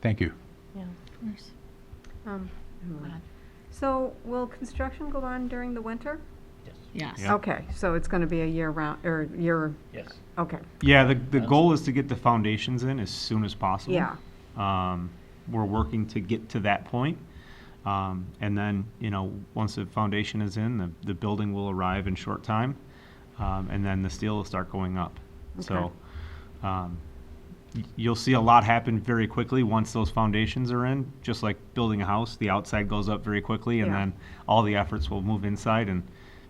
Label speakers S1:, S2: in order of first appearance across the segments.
S1: Thank you.
S2: Yeah.
S3: Um, So will construction go on during the winter?
S2: Yes.
S1: Yeah.
S3: Okay, so it's going to be a year round, or year,
S4: Yes.
S3: okay,
S5: Yeah, the, the goal is to get the foundations in as soon as possible.
S3: yeah.
S5: Um, we're working to get to that point. Um, and then, you know, once the foundation is in, the, the building will arrive in short time. Um, and then the steel will start going up. So, um, y- you'll see a lot happen very quickly once those foundations are in, just like building a house, the outside goes up very quickly and
S3: Yeah.
S5: then all the efforts will move inside and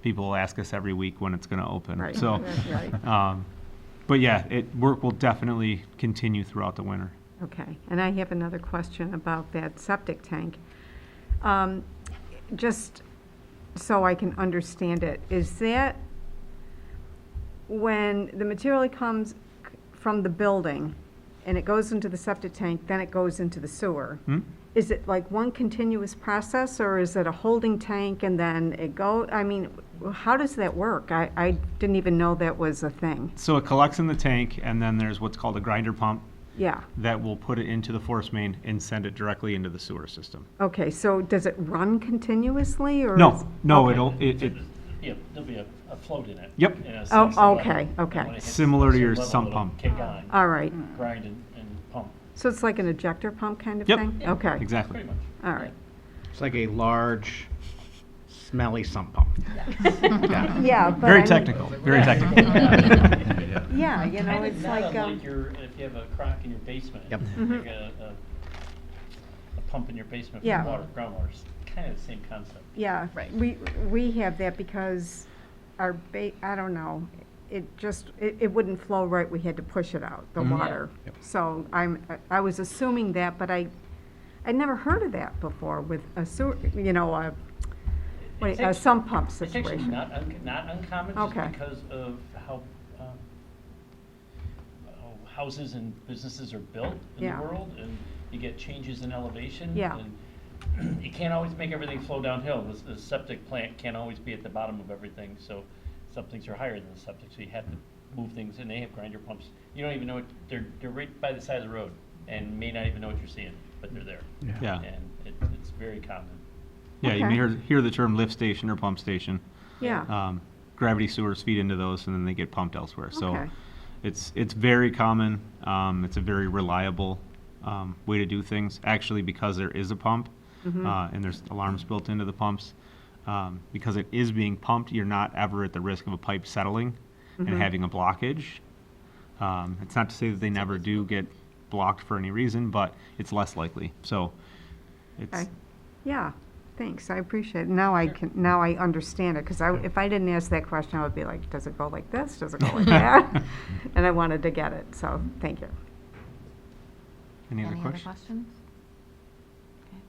S5: people will ask us every week when it's gonna open.
S3: Right.
S5: So,
S3: Right.
S5: um, but yeah, it, work will definitely continue throughout the winter.
S3: Okay, and I have another question about that septic tank. Um, Just so I can understand it, is that when the material comes c- from the building and it goes into the septic tank, then it goes into the sewer?
S5: Hmm?
S3: Is it like one continuous process, or is it a holding tank and then it go, I mean, w- how does that work? I, I didn't even know that was a thing.
S5: So it collects in the tank, and then there's what's called a grinder pump
S3: Yeah,
S5: that will put it into the force main and send it directly into the sewer system.
S3: okay, so does it run continuously, or? is-
S5: No, no,
S3: okay.
S5: it'll, it, it,
S4: Yeah, there'll be a, a float in it.
S5: Yep.
S4: in a sense,
S3: Oh,
S4: so when-
S3: okay, okay.
S4: when it hits a
S5: Similar to
S4: certain
S5: your
S4: level,
S5: sump
S4: it'll
S5: pump.
S4: Kick on,
S3: All right,
S4: grind and, and pump,
S3: so it's like an ejector pump kind of
S5: Yep.
S3: thing? Okay,
S5: exactly.
S4: pretty much.
S3: all right.
S6: It's like a large, smelly sump pump. Yeah.
S3: Yeah, but. I
S5: Very
S3: mean-
S5: technical, very
S4: Yeah.
S5: technical.
S3: Yeah, you know,
S4: Kind
S3: it's
S4: of not
S3: like, um,
S4: unlike your, if you have a crock in your basement.
S6: Yep.
S4: You got a, a- a pump in your basement
S3: Mm-hmm. Yeah.
S4: for water, groundwater, it's kind of the same concept.
S3: yeah,
S2: Right.
S3: we, we have that because our ba, I don't know, it just, it, it wouldn't flow right, we had to push it out, the
S5: Mhm. Yeah.
S3: water.
S6: Yep.
S3: So I'm, I was assuming that, but I, I'd never heard of that before with a sewer, you know, a, what-
S4: It's
S3: a
S4: actu-
S3: sump pump
S4: It's actually
S3: situation.
S4: not, un- not uncommon, just
S3: Okay.
S4: because of how, um, how houses and businesses are built in
S3: Yeah.
S4: the world, and you get changes in elevation.
S3: Yeah.
S4: and You can't always make everything flow downhill, the s- the septic plant can't always be at the bottom of everything, so some things are higher than the septic, so you have to move things, and they have grinder pumps. You don't even know, it they're, they're right by the side of the road, and may not even know what you're seeing, but they're there.
S5: Yeah,
S4: And it, it's very common.
S5: yeah, you
S3: Okay.
S5: may hear, hear the term lift station or pump station.
S3: Yeah,
S5: Um, gravity sewers feed into those, and then they get pumped elsewhere, so.
S3: okay,
S5: It's, it's very common, um, it's a very reliable, um, way to do things, actually because there is a pump.
S3: Mm-hmm.
S5: Uh, and there's alarms built into the pumps. Um, because it is being pumped, you're not ever at the risk of a pipe settling and
S3: Mm-hmm.
S5: having a blockage. Um, it's not to say that they never do get blocked for any reason, but it's less likely, so it's,
S3: okay. Yeah, thanks, I appreciate it. Now I can, now I understand it, because I, if I didn't ask that question, I would be like, does it go like this? Does it go like that? And I wanted to get it, so, thank you.
S5: any other
S2: Any other
S5: questions?
S2: questions? Okay.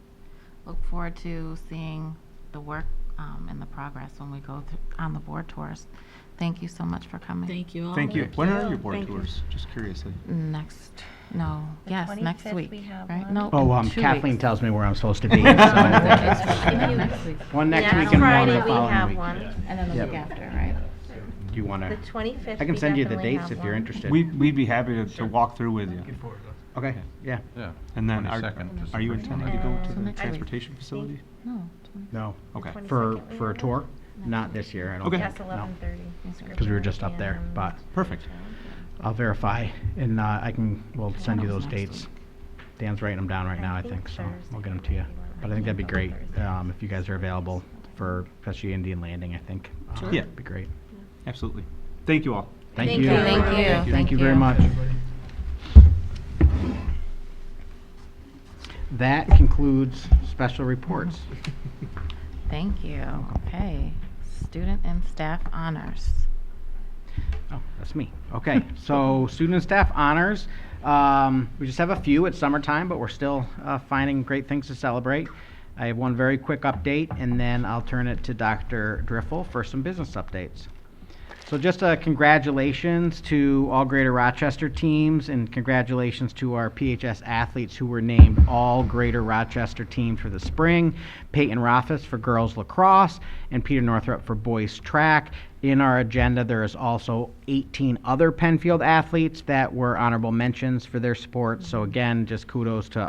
S2: Look forward to seeing the work um, and the progress when we go thr- on the board tours. Thank you so much for coming.
S7: Thank you all.
S5: Thank you. When are your board
S3: Thank you.
S5: tours? Just curiously.
S2: Mm. Next, no,
S7: The
S2: yes, next
S7: 25th
S2: week,
S7: we have
S2: right?
S7: one.
S2: No,
S6: Oh,
S2: in
S6: um,
S2: two
S6: Kathleen
S2: weeks.
S6: tells me where I'm supposed to be. so I
S2: Next week.
S6: think- One next
S7: Yeah,
S6: week and one
S7: Friday
S6: the
S7: we
S6: following
S7: have
S6: week.
S7: one.
S2: And then the
S6: Yep.
S2: week after, right?
S6: Do you want
S7: The
S6: to,
S7: 25th.
S6: I can
S7: we
S6: send you the
S7: definitely
S6: dates
S7: have
S6: if you're
S7: one.
S6: interested.
S5: We, we'd be happy to, to walk through with you.
S6: Okay, yeah,
S1: Yeah.
S5: And then are,
S1: 22nd is
S5: are you
S1: the first
S5: intending to go to
S7: Um,
S5: the
S2: next week.
S5: transportation facility?
S2: No, 20
S6: no,
S5: Okay.
S6: for,
S7: 22nd we
S6: for a
S7: have
S6: tour?
S2: one.
S6: Not this year, I don't
S5: Okay.
S6: think.
S7: Yes, 11:30.
S6: Because we were just up there,
S7: and-
S6: but
S5: Perfect.
S6: I'll verify and uh, I can, we'll send you
S2: That
S6: those
S2: was next
S6: dates. Dan's writing them down right now, I think, so we'll get them to you. But I think that'd be great, um, if you guys are available for especially Indian Landing, I think. uh,
S5: Sure. Yeah.
S6: Be great.
S5: Absolutely. Thank you all.
S6: Thank
S7: Thank
S6: you.
S7: you. Thank you.
S6: Thank
S2: Thank
S6: you very
S2: you.
S6: much. That concludes special reports.
S2: Thank you. Okay. Student and staff honors.
S6: Oh, that's me. Okay, so student and staff honors. Um, we just have a few. It's summertime, but we're still uh, finding great things to celebrate. I have one very quick update, and then I'll turn it to Dr. Driffel for some business updates. So just uh, congratulations to all Greater Rochester teams and congratulations to our PHS athletes who were named all Greater Rochester teams for the spring. Peyton Rothis for girls lacrosse and Peter Northrup for boys track. In our agenda, there is also 18 other Penfield athletes that were honorable mentions for their sports. So again, just kudos to